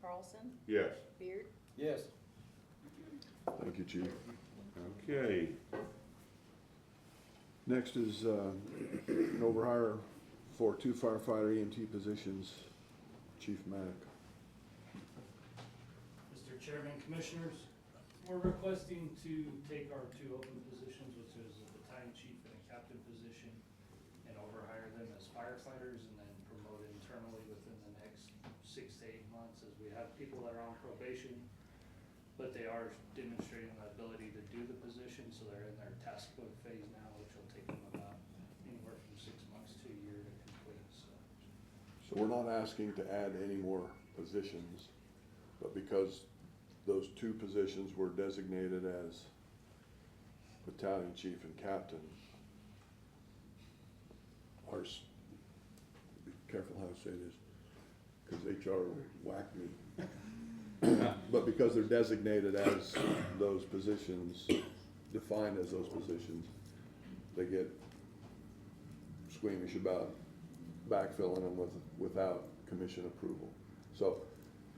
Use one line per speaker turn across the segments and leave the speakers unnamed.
Carlson,
Yes.
Beard,
Yes.
Thank you, Chief.
Okay,
Next is uh, an overhire for two firefighter EMT positions. Chief Mack.
Mr. Chairman, Commissioners, we're requesting to take our two open positions, which is the battalion chief and a captain position, and overhire them as firefighters and then promote internally within the next six to eight months as we have people that are on probation, but they are demonstrating the ability to do the position, so they're in their task book phase now, which will take them about anywhere from six months to a year to complete, so.
So we're not asking to add any more positions, but because those two positions were designated as battalion chief and captain, ours, be careful how I say this, because HR whacked me. But because they're designated as those positions, defined as those positions, they get squeamish about backfilling them with, without commission approval. So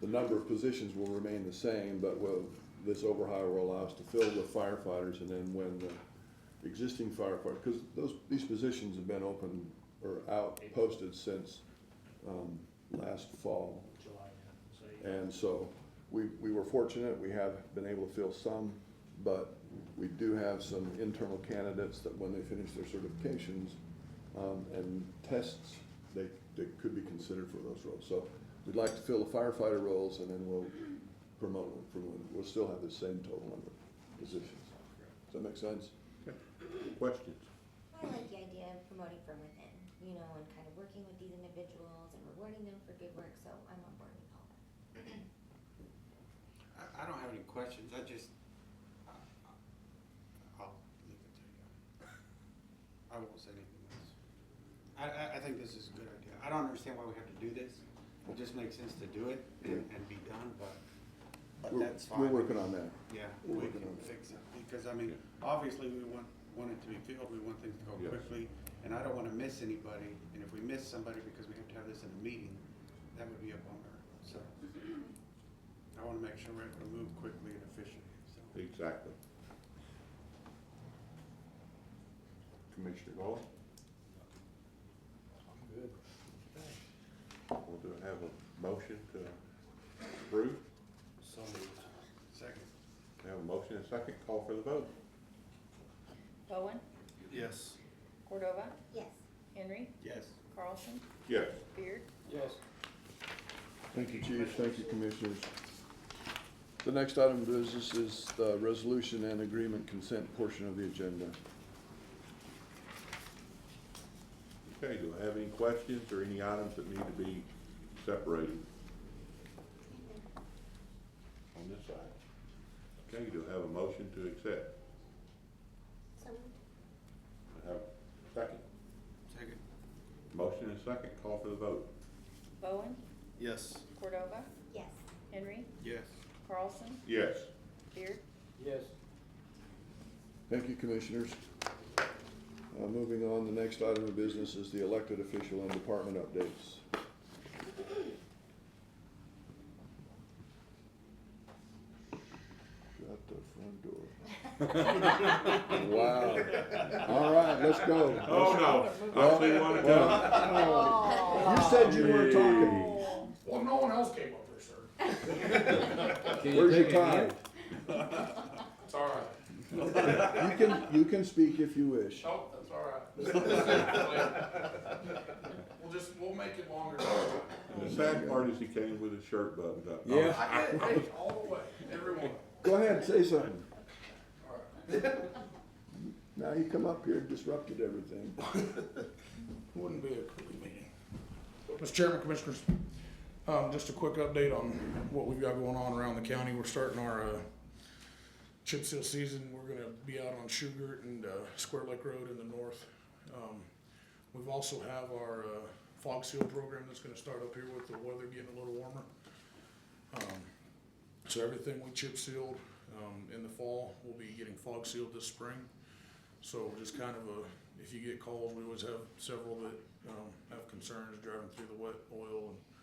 the number of positions will remain the same, but will, this overhire will allow us to fill with firefighters and then when the existing firefighter, because those, these positions have been open or out posted since, um, last fall.
July, yeah. so yeah.
And so we, we were fortunate, we have been able to fill some, but we do have some internal candidates that when they finish their certifications um, and tests, they, they could be considered for those roles. So we'd like to fill the firefighter roles and then we'll promote them from, within. we'll still have the same total number of positions. Does that make sense?
questions?
I like the idea of promoting from within, you know, and kind of working with these individuals and rewarding them for good work, so I'm on board with all that.
I, I don't have any questions, I just, I, I- I'll leave it to you. I won't say anything else. I, I, I think this is a good idea. I don't understand why we have to do this. It just makes sense to do it and, and be done, but, but
We're-
that's fine.
We're working on that.
Yeah,
we're
we
working
can
on it.
fix it, because I mean, obviously, we want, want it to be filled, we want things to go
Yes.
quickly, and I don't wanna miss anybody, and if we miss somebody because we have to have this in a meeting, that would be a bummer, so. I wanna make sure we're able to move quickly and efficiently, so.
Exactly. Commissioner Galt? I'm good. Well, do I have a motion to approve?
So moved. Second.
I have a motion and a second, call for the vote.
Bowen,
Yes.
Cordova,
Yes,
Henry,
Yes.
Carlson,
Yes.
Beard,
Yes.
Thank you, Chief. Thank you, Commissioners. The next item of business is the resolution and agreement consent portion of the agenda.
Okay, do I have any questions or any items that need to be separated? On this side. Okay, do I have a motion to accept?
so moved.
I have a second.
Second.
Motion and second, call for the vote.
Bowen,
Yes.
Cordova,
yes,
Henry,
Yes.
Carlson,
Yes.
Beard,
Yes.
Thank you, Commissioners. Uh, Moving on, the next item of business is the elected official and department updates. Shut the front door. Wow. All right, let's go.
Oh, no, I see one coming.
You said you weren't talking.
Oh.
Well, no one else came up here, sir.
Where's your time?
It's all right.
You can, you can speak if you wish.
Oh, that's all right. We'll just, we'll make it longer.
The sad part is he came with his shirt buttoned up.
Yeah.
I did, hey, all the way, everyone.
Go ahead, say something.
All right.
Now you come up here and disrupted everything.
Wouldn't be a quick meeting. Mr. Chairman, Commissioners, um, just a quick update on what we've got going on around the county. We're starting our, uh, chip seal season. We're gonna be out on Sugar and, uh, Square Lake Road in the north. Um, we've also have our, uh, fog seal program that's gonna start up here with the weather getting a little warmer. Um, So everything we chip sealed, um, in the fall, we'll be getting fog sealed this spring. So just kind of a, if you get calls, we always have several that, um, have concerns driving through the wet oil and